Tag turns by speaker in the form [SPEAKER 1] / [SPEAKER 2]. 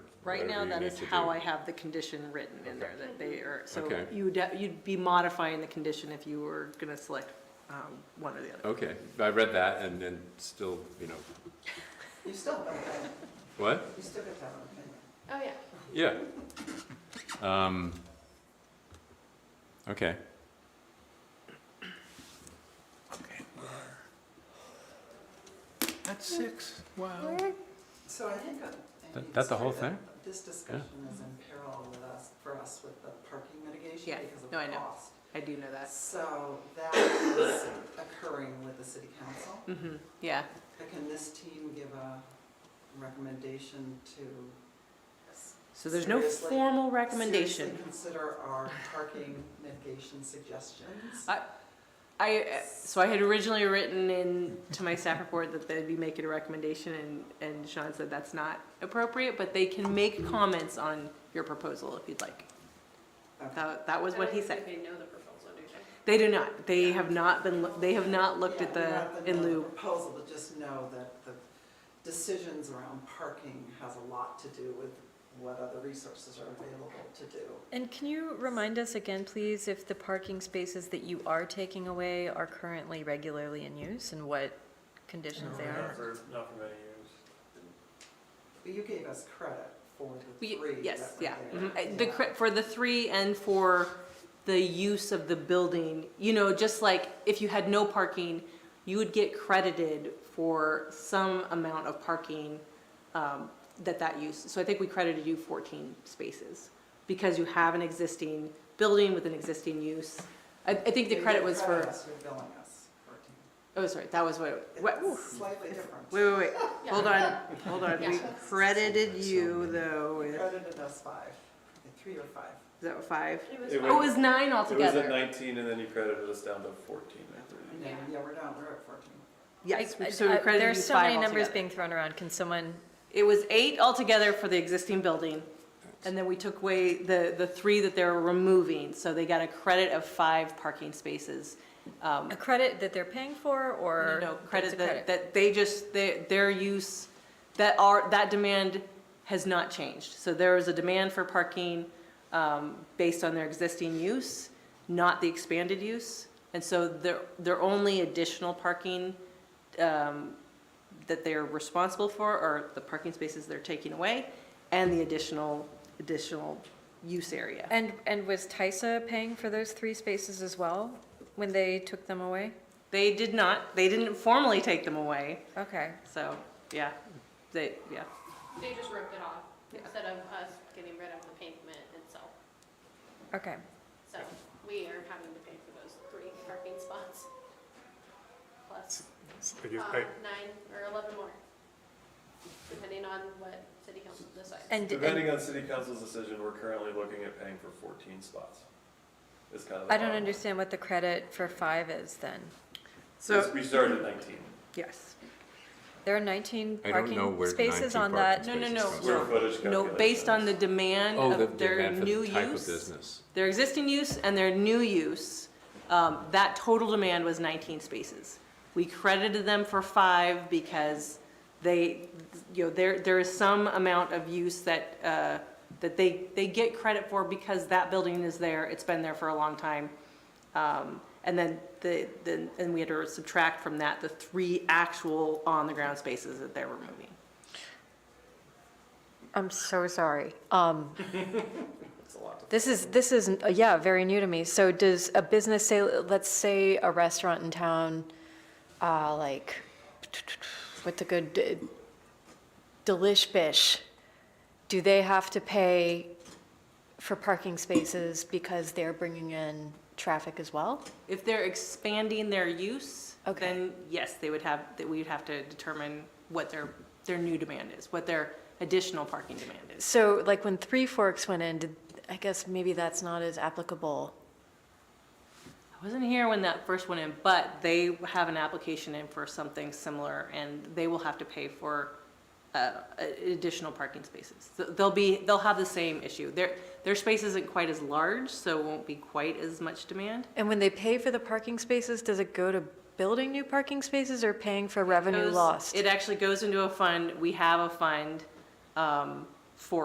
[SPEAKER 1] Right now,
[SPEAKER 2] Whatever you
[SPEAKER 1] that
[SPEAKER 2] need
[SPEAKER 1] is
[SPEAKER 2] to
[SPEAKER 1] how
[SPEAKER 2] do.
[SPEAKER 1] I have the condition written in there, that they are, so
[SPEAKER 2] Okay.
[SPEAKER 1] you would, you'd be modifying the condition if you were gonna select, um, one or the other.
[SPEAKER 2] Okay, I read that and then still, you know,
[SPEAKER 3] You still have an opinion.
[SPEAKER 2] what?
[SPEAKER 3] You still have to have an opinion.
[SPEAKER 4] Oh, yeah.
[SPEAKER 2] Yeah. Um, okay.
[SPEAKER 5] That's six, wow.
[SPEAKER 3] So I think. uh, I
[SPEAKER 2] That-
[SPEAKER 3] need
[SPEAKER 2] that
[SPEAKER 3] to
[SPEAKER 2] the whole
[SPEAKER 3] say that This discussion is in parallel with us, for us with the parking
[SPEAKER 1] Yeah,
[SPEAKER 3] mitigation because of
[SPEAKER 1] no, I
[SPEAKER 3] the
[SPEAKER 1] know.
[SPEAKER 3] cost.
[SPEAKER 1] I do know that.
[SPEAKER 3] So that is occurring with the city council.
[SPEAKER 1] hmm yeah,
[SPEAKER 3] But Can this team give a recommendation to s-
[SPEAKER 1] so there's no
[SPEAKER 3] Seriously?
[SPEAKER 1] formal recommendation.
[SPEAKER 3] seriously consider our parking mitigation suggestions?
[SPEAKER 1] I- I, uh, so I had originally written in to my staff report that they'd be making a recommendation and, and Sean said that's not appropriate, but they can make comments on your proposal if you'd like.
[SPEAKER 3] Okay.
[SPEAKER 1] That, that was what he said.
[SPEAKER 4] They know the proposal, do they?
[SPEAKER 1] They do not, they have not been, loo- they have not looked at
[SPEAKER 3] Yeah,
[SPEAKER 1] the,
[SPEAKER 3] not
[SPEAKER 1] in
[SPEAKER 3] not
[SPEAKER 1] lieu.
[SPEAKER 3] Proposal, but just know that the decisions around parking has a lot to do with what other resources are available to do.
[SPEAKER 6] And can you remind us again, please, if the parking spaces that you are taking away are currently regularly in use and what conditions they are?
[SPEAKER 7] Not for, not for many years.
[SPEAKER 3] But you gave us credit for the
[SPEAKER 1] We-
[SPEAKER 3] three.
[SPEAKER 1] Yes,
[SPEAKER 3] that were
[SPEAKER 1] yeah.
[SPEAKER 3] there.
[SPEAKER 1] Mhm. Uh, The, cre- for the three and for the use of the building, you know, just like if you had no parking, you would get credited for some amount of parking um, that that use. So I think we credited you 14 spaces because you have an existing building with an existing use. I, I think the
[SPEAKER 3] You
[SPEAKER 1] credit
[SPEAKER 3] gave
[SPEAKER 1] was for,
[SPEAKER 3] us for billing us for
[SPEAKER 1] oh, sorry, that was what, what-
[SPEAKER 3] it. It's slightly different.
[SPEAKER 1] wait, wait, wait,
[SPEAKER 4] Yeah.
[SPEAKER 1] hold on, hold on. We
[SPEAKER 4] Yeah.
[SPEAKER 1] credited you though
[SPEAKER 3] You
[SPEAKER 1] with, is
[SPEAKER 3] credited us five, three or five.
[SPEAKER 1] that five?
[SPEAKER 7] It
[SPEAKER 1] Oh, it was nine
[SPEAKER 7] It was
[SPEAKER 1] altogether.
[SPEAKER 7] at nineteen and then you credited us down to fourteen, I believe.
[SPEAKER 3] And then, yeah, we're down, we're at fourteen.
[SPEAKER 1] Yes,
[SPEAKER 6] I-
[SPEAKER 1] we- uh, so we
[SPEAKER 6] I-
[SPEAKER 1] credited you
[SPEAKER 6] There's so many
[SPEAKER 1] five
[SPEAKER 6] numbers
[SPEAKER 1] altogether.
[SPEAKER 6] being thrown around. Can someone,
[SPEAKER 1] It was eight altogether for the existing building, and then we took away the, the three that they were removing, so they got a credit of five parking spaces. Um,
[SPEAKER 6] a credit that they're paying for or?
[SPEAKER 1] You know,
[SPEAKER 6] that's a
[SPEAKER 1] credit that, that they just, their, their use, that are, that demand has not changed. So there is a demand for parking, um, based on their existing use, not the expanded use. And so their, their only additional parking, um, that they're responsible for are the parking spaces they're taking away and the additional, additional use area.
[SPEAKER 6] And, and was TISA paying for those three spaces as well when they took them away?
[SPEAKER 1] They did not, they didn't formally take them away,
[SPEAKER 6] Okay.
[SPEAKER 1] so, yeah, they, yeah.
[SPEAKER 4] They just ripped it off
[SPEAKER 1] Yeah.
[SPEAKER 4] instead of us getting rid of the pavement itself.
[SPEAKER 6] Okay.
[SPEAKER 4] So we are having to pay for those three parking spots. Plus,
[SPEAKER 7] I
[SPEAKER 4] uh, nine or 11 more, depending on what city council decides.
[SPEAKER 6] And, and
[SPEAKER 7] Depending on city council's decision, we're currently looking at paying for fourteen spots. Is kind of. the
[SPEAKER 6] I don't
[SPEAKER 7] bottom line.
[SPEAKER 6] understand what the credit for five is then.
[SPEAKER 1] So,
[SPEAKER 7] We started at nineteen.
[SPEAKER 1] yes.
[SPEAKER 6] There are 19
[SPEAKER 2] I don't know
[SPEAKER 6] parking
[SPEAKER 2] where the
[SPEAKER 6] spaces
[SPEAKER 2] 19
[SPEAKER 6] on
[SPEAKER 2] parking
[SPEAKER 1] No, no,
[SPEAKER 6] that.
[SPEAKER 2] spaces
[SPEAKER 1] no.
[SPEAKER 2] come
[SPEAKER 7] Square
[SPEAKER 2] from.
[SPEAKER 7] footage
[SPEAKER 1] No, based on the
[SPEAKER 7] calculations.
[SPEAKER 1] demand
[SPEAKER 2] Oh, the
[SPEAKER 1] of
[SPEAKER 2] the
[SPEAKER 1] their
[SPEAKER 2] for
[SPEAKER 1] new
[SPEAKER 2] the type of
[SPEAKER 1] use,
[SPEAKER 2] business.
[SPEAKER 1] their existing use and their new use, um, that total demand was 19 spaces. We credited them for five because they, you know, there, there is some amount of use that, uh, that they, they get credit for because that building is there, it's been there for a long time. Um, And then the, then, and we had to subtract from that the three actual on-the-ground spaces that they're removing.
[SPEAKER 6] I'm so sorry. Um,
[SPEAKER 7] It's a lot to-
[SPEAKER 6] This is, this is, uh, yeah, very new to me. So does a business say, let's say a restaurant in town, uh, like, what's a good, d- Delish Bish, do they have to pay for parking spaces because they're bringing in traffic as well?
[SPEAKER 1] If they're expanding their use,
[SPEAKER 6] Okay.
[SPEAKER 1] then yes, they would have, that we'd have to determine what their, their new demand is, what their additional parking demand is.
[SPEAKER 6] So like when Three Forks went in, did, I guess maybe that's not as applicable.
[SPEAKER 1] I wasn't here when that first went in, but they have an application in for something similar, and they will have to pay for uh, a- additional parking spaces. So They'll be, they'll have the same issue. Their, their space isn't quite as large, so it won't be quite as much demand.
[SPEAKER 6] And when they pay for the parking spaces, does it go to building new parking spaces or paying for revenue
[SPEAKER 1] goes-
[SPEAKER 6] lost?
[SPEAKER 1] It actually goes into a fund. We have a fund um,